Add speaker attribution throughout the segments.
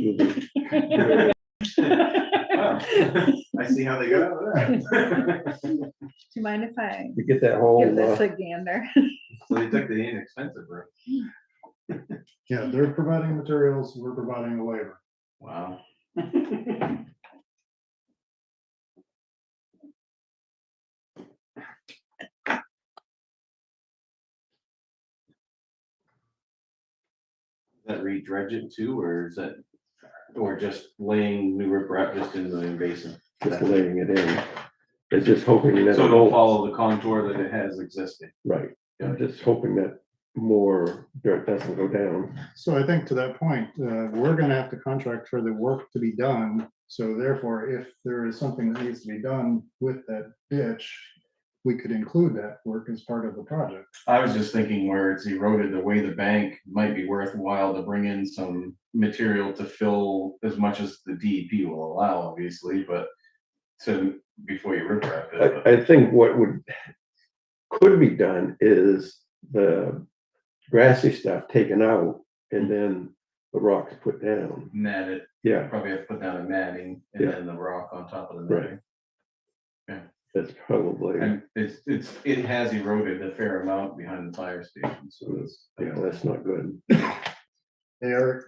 Speaker 1: you.
Speaker 2: I see how they got out of that.
Speaker 3: Do you mind if I
Speaker 1: You get that whole,
Speaker 3: give this
Speaker 1: uh,
Speaker 3: a gander?
Speaker 2: So they took the inexpensive route.
Speaker 4: Yeah, they're providing materials, we're providing a waiver.
Speaker 2: Wow. That re-dredge it too, or is that, or just laying new riprap just in the basin?
Speaker 1: just laying it in. They're just hoping that.
Speaker 2: So it'll follow the contour that it has existing.
Speaker 1: Right, I'm just hoping that more dirt doesn't go down.
Speaker 4: So I think to that point, uh, we're gonna have to contract for the work to be done. So therefore, if there is something that needs to be done with that ditch, we could include that work as part of the project.
Speaker 2: I was just thinking where it's eroded away the bank might be worthwhile to bring in some material to fill as much as the DEP will allow, obviously, but to, before you rip wrap it.
Speaker 1: I, I think what would, could be done is the grassy stuff taken out and then the rocks put down.
Speaker 2: Mat it,
Speaker 1: Yeah,
Speaker 2: probably have to put down a matting and
Speaker 1: Yeah.
Speaker 2: then the rock on top of the
Speaker 1: Right.
Speaker 2: matting.
Speaker 1: that's probably,
Speaker 2: And it's, it's, it has eroded a fair amount behind the fire station, so it's.
Speaker 1: yeah, that's not good.
Speaker 4: Eric,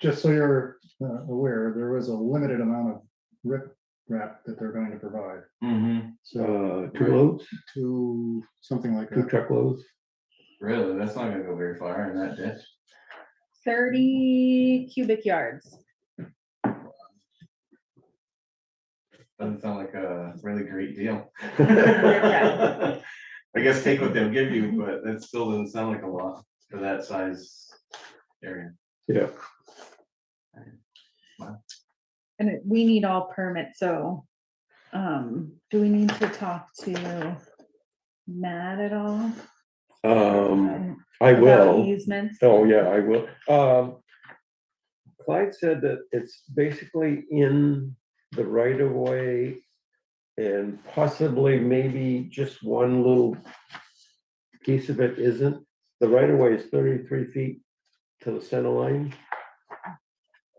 Speaker 4: just so you're uh, aware, there was a limited amount of rip wrap that they're going to provide. Mm-hmm.
Speaker 2: Mhm.
Speaker 4: So
Speaker 1: Uh, two loads,
Speaker 4: to something like
Speaker 1: two
Speaker 4: that.
Speaker 1: truckloads,
Speaker 2: really, that's not gonna go very far in that ditch.
Speaker 3: Thirty cubic yards.
Speaker 2: Doesn't sound like a really great deal.
Speaker 3: Yeah.
Speaker 2: I guess take what they'll give you, but that still doesn't sound like a lot for that size area.
Speaker 1: yeah.
Speaker 3: And it- we need all permits, so um, do we need to talk to Matt at all?
Speaker 1: Um,
Speaker 3: um,
Speaker 1: I
Speaker 3: about
Speaker 1: will.
Speaker 3: Easements?
Speaker 1: Oh, yeah, I will. Um, Clyde said that it's basically in the right of way and possibly maybe just one little piece of it isn't. The right of way is thirty-three feet to the center line.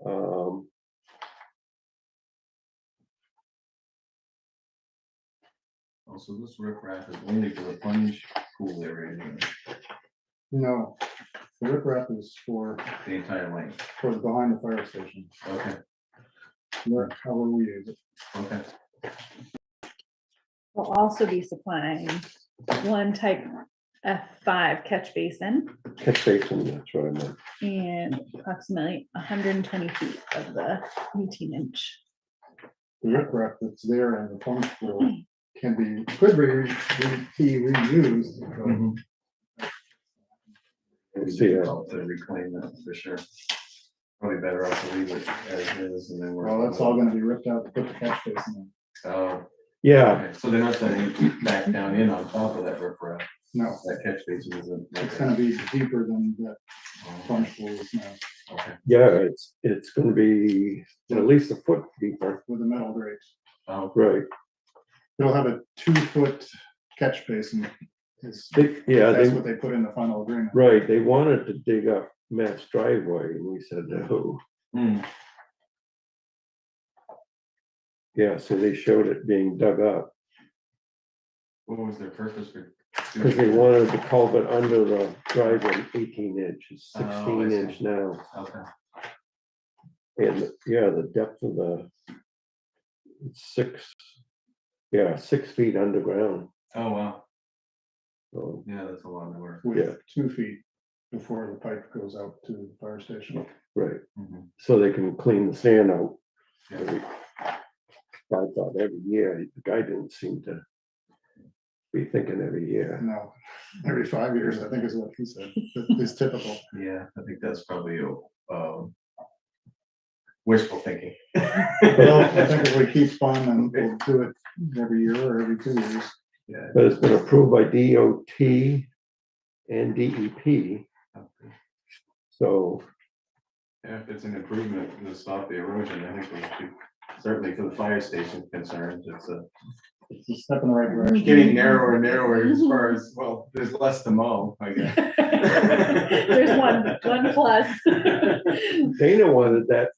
Speaker 1: Um,
Speaker 2: Also, this riprap is only for the plunge pool area, anyway,
Speaker 4: No, the rip wrap is for,
Speaker 2: the entire length.
Speaker 4: for the behind the fire station,
Speaker 2: Okay,
Speaker 4: where- however we use it.
Speaker 2: okay.
Speaker 3: We'll also be supplying one type F five catch basin
Speaker 1: catch basin, that's what I meant.
Speaker 3: and approximately hundred and twenty feet of the eighteen inch.
Speaker 4: the riprap that's there and the pump pool can be, could be, re- re- be reused.
Speaker 1: Mm-hmm.
Speaker 4: but
Speaker 2: It's
Speaker 1: See, uh,
Speaker 2: difficult To reclaim that for sure. Probably better off to leave it as is and then. work
Speaker 4: Well, that's
Speaker 2: on
Speaker 4: all
Speaker 2: it.
Speaker 4: gonna be ripped out to put the catch basin
Speaker 2: Oh,
Speaker 1: Yeah,
Speaker 2: okay, so they're not setting back down in on top of that riprap,
Speaker 4: in. No,
Speaker 2: that catch basin isn't. like
Speaker 4: it's gonna be deeper than that
Speaker 2: that.
Speaker 4: punch pool is now
Speaker 2: Okay.
Speaker 1: yeah, it's, it's gonna be at least a foot deeper,
Speaker 4: with the metal grate.
Speaker 2: Oh,
Speaker 1: right?
Speaker 4: It'll have a two-foot catch basin. is-
Speaker 1: They- Yeah,
Speaker 4: That's
Speaker 1: they,
Speaker 4: what they put in the final agreement.
Speaker 1: Right, they wanted to dig up Matt's driveway, and we said no.
Speaker 2: hmm,
Speaker 1: Yeah, so they showed it being dug up,
Speaker 2: what was their purpose for?
Speaker 1: because
Speaker 2: doing
Speaker 1: they
Speaker 2: that?
Speaker 1: wanted the culvert under the driveway eighteen inches,
Speaker 2: Oh, I
Speaker 1: sixteen
Speaker 2: see.
Speaker 1: inch now.
Speaker 2: Okay,
Speaker 1: And, yeah, the depth of the six, yeah, six feet underground, Oh,
Speaker 2: oh, wow,
Speaker 1: so,
Speaker 2: yeah, that's a lot of work.
Speaker 1: Yeah.
Speaker 4: With two feet before the pipe goes out to the fire station.
Speaker 1: right,
Speaker 2: Mhm.
Speaker 1: so they can clean the sand out.
Speaker 2: Yeah.
Speaker 1: every- I thought every year, the guy didn't seem to be thinking every year.
Speaker 4: No, every five years, I think is what he said, that is typical.
Speaker 2: Yeah, I think that's probably, um, wishful thinking.
Speaker 4: Well, I think if we keep on and we'll do it every year or every two years.
Speaker 2: Yeah.
Speaker 1: But it's been approved by DOT and DEP, so,
Speaker 2: Yeah, if it's an improvement to stop the erosion, I think we should, certainly for the fire station concerns, it's a
Speaker 4: it's a step in the right direction.
Speaker 2: It's Getting narrower and narrower as far as, well, there's less to mow, I guess.
Speaker 3: There's one, one plus.
Speaker 1: Dana wanted that